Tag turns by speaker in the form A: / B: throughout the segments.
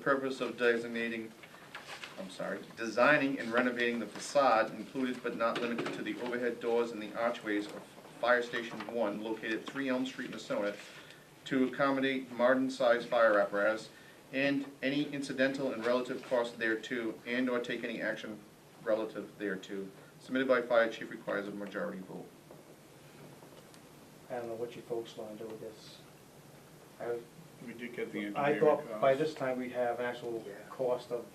A: purpose of designating, I'm sorry, designing and renovating the facade included but not limited to the overhead doors and the archways of Fire Station One located at Three Elm Street, Missona, to accommodate modern-sized fire apparatus and any incidental and relative cost thereto and/or take any action relative thereto submitted by fire chief requires a majority vote.
B: I don't know what you folks wanna do with this. I,
C: We did get the
B: I
C: engineering cost.
B: thought by this time we'd have an actual cost of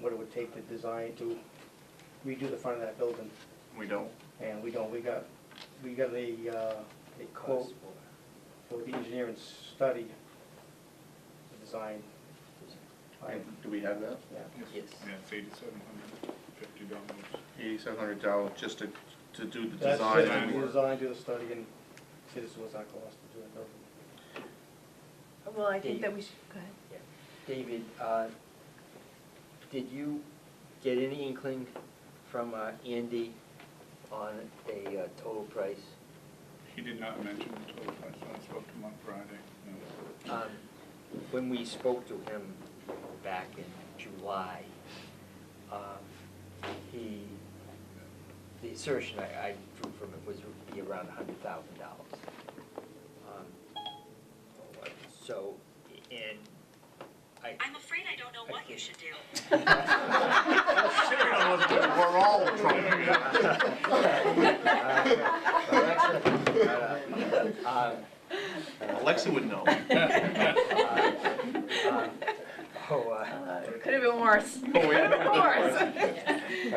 B: what it would take to design, to redo the front of that building,
A: We don't?
B: and we don't, we got, we got a, uh, a quote for the engineering study, the design. I,
A: Do we have that?
B: yeah.
C: Yes, yeah, it's eighty-seven hundred fifty dollars.
A: Eighty-seven hundred dollars just to, to do the
B: That's
A: design
B: just
A: and
B: to
A: work.
B: Design, do the study, and see this was our cost to do that building.
D: Well, I think that we should, go ahead.
E: David, uh, did you get any inkling from uh, Andy on a uh, total price?
C: He did not mention the total price, when I spoke to him on Friday. no.
E: Um, When we spoke to him back in July, um, he, the assertion I I drew from it was it would be around hundred thousand dollars. Um, So, and I.
F: I'm afraid I don't know what you should do.
A: We're all trying.
E: Alexa, uh, uh,
A: Alexa would know.
E: uh, Oh, uh,
D: Could have been worse.
A: Oh, yeah.
D: Could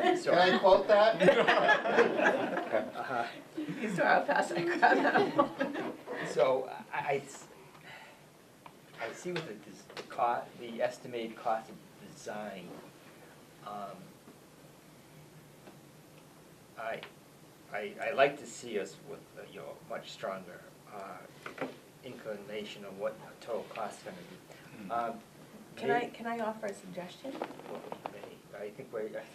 D: have
E: so,
A: quote that?
E: uh,
D: been worse. You saw how fast I grabbed that one.
E: so I, I s- I see what the, des- the co- the estimated cost of design. Um, I, I, I like to see us with, uh, you know, much stronger, uh, inclination of what the total cost is gonna be. Um,
D: Can I,
E: may-
D: can I offer a suggestion?
E: I think we, I think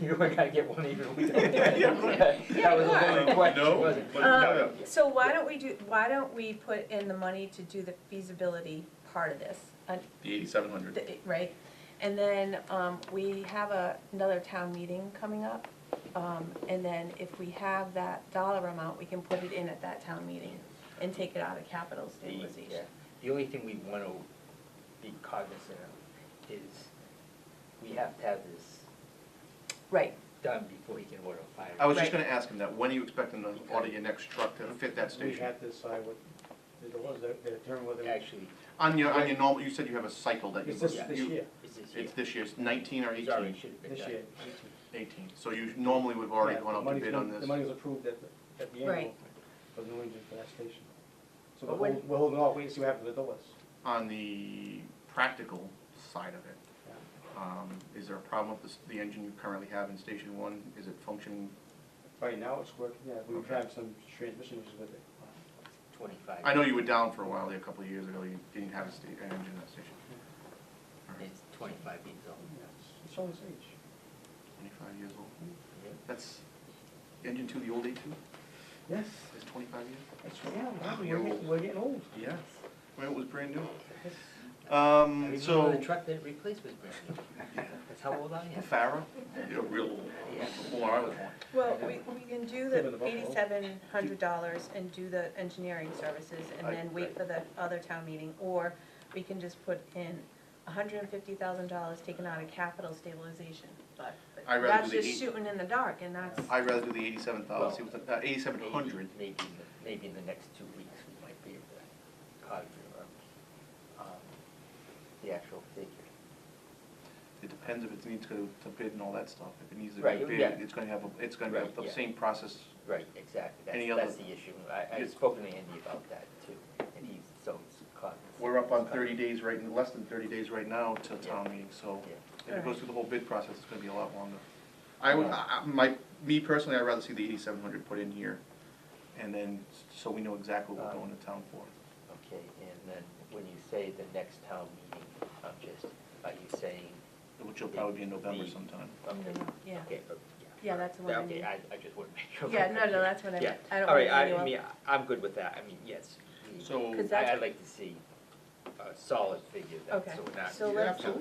E: you, you were gonna get one even. we don't.
A: Yeah, yeah.
E: That was a
D: Yeah,
E: loaded
A: no.
E: question, wasn't
A: But
E: it?
A: no,
D: Um, So why don't we do, why don't we put in the money to do the feasibility part of this, uh,
A: The eighty-seven hundred.
D: th- right? And then um, we have a- another town meeting coming up. um, And then if we have that dollar amount, we can put it in at that town meeting and take it out of capital
E: The, uh,
D: stabilization.
E: The only thing we wanna be cognizant of is we have to have this
D: Right,
E: done before he can order a fire.
A: I was just
D: Right.
A: gonna ask him that. When are you expecting to order your next truck to fit that
B: We
A: station?
B: had to decide what, the doors, that- that determine whether.
E: Actually,
A: On your, on your normal, you said you have a cycle that you.
B: It's this,
A: you-
B: this year,
E: it's this year.
A: It's this year, it's nineteen or
E: It's already
A: eighteen?
E: should have been
B: this
E: done.
B: year.
A: Eighteen. So you normally would have already
B: Yeah,
A: gone
B: the
A: out to
B: money's
A: bid
B: been-
A: on this.
B: The money was approved at, the- at the annual,
D: Right.
B: but no engine for that station. So
D: But
B: we're
D: when-
B: holding, we're holding off, waiting to see what happens with the doors.
A: On the practical side of it, um, is there a problem with the, the engine you currently have in station one? Is it functioning?
B: Right now, it's working, yeah, we've
A: Okay.
B: had some transmission issues with it.
E: Twenty-five.
A: I know you were down for a while there a couple of years ago. You didn't have a sta- an engine in that station. All right,
E: It's twenty-five years
B: Yeah,
A: Mm,
E: old.
B: it's- It's on its age.
A: Twenty-five years old.
E: Yeah.
A: That's engine two, the old A two,
B: Yes,
A: is twenty-five years?
B: it's, yeah,
A: Ah,
B: we're
A: we're
B: getting,
A: old.
B: we're getting old.
A: Yeah. When it was brand new.
B: Yes.
E: I
A: Um,
E: remember
A: so,
E: The truck that it replaced was brand new. That's how old I am.
A: Farah, you're real old,
E: Yeah.
A: before I was born.
D: Well, we, we can do
B: Live in
D: the
B: the Buffalo.
D: eighty-seven hundred dollars and do the engineering services
A: I-
D: and then wait for the other town meeting, or we can just put in hundred and fifty thousand dollars taken out of capital stabilization, but but
A: I'd rather
D: that's
A: do the
D: just
A: eight-
D: shooting in the dark, and that's,
A: I'd rather do the eighty-seven thousand, see what the, uh, eighty-seven
E: Maybe-
A: hundred.
E: Maybe, in the- maybe in the next two weeks, we might be able to conjure up um, the actual figure.
A: It depends if it needs to, to bid and all that stuff. If it needs to
E: Right,
A: be
E: yeah.
A: bid, it's gonna have, a- it's gonna
E: Right,
A: be the
E: yeah.
A: same process.
E: Right, exactly.
A: Any
E: That's,
A: other-
E: that's the issue. I,
A: Yes.
E: I've spoken to Andy about that too, and he's so cognizant.
A: We're up on thirty days right, less than thirty days right now till town meeting, so
E: Yeah.
A: if it goes through the whole bid process, it's gonna be a lot longer. Um, I would, I, I- my, me personally, I'd rather see the eighty-seven hundred put in here, and then, s- so we know exactly what we're going to town for.
E: Okay, and then when you say the next town meeting, I'm just, are you saying?
A: Which will probably be in November
E: The-
A: sometime.
E: Okay,
D: yeah,
E: okay, uh,
D: yeah, that's the one I
E: Okay,
D: need.
E: I, I just want to make sure.
D: Yeah, no, no, that's what I
E: Yeah.
D: meant, I don't
E: All
D: want to
E: right, I,
D: you
E: I
D: up.
E: mean, I- I'm good with that, I mean, yes. we-
A: So.
D: Because
E: I-
D: that's-
E: I'd like to see a solid figure, then,
D: Okay,
E: so we're not.
D: so let's,
A: absolutely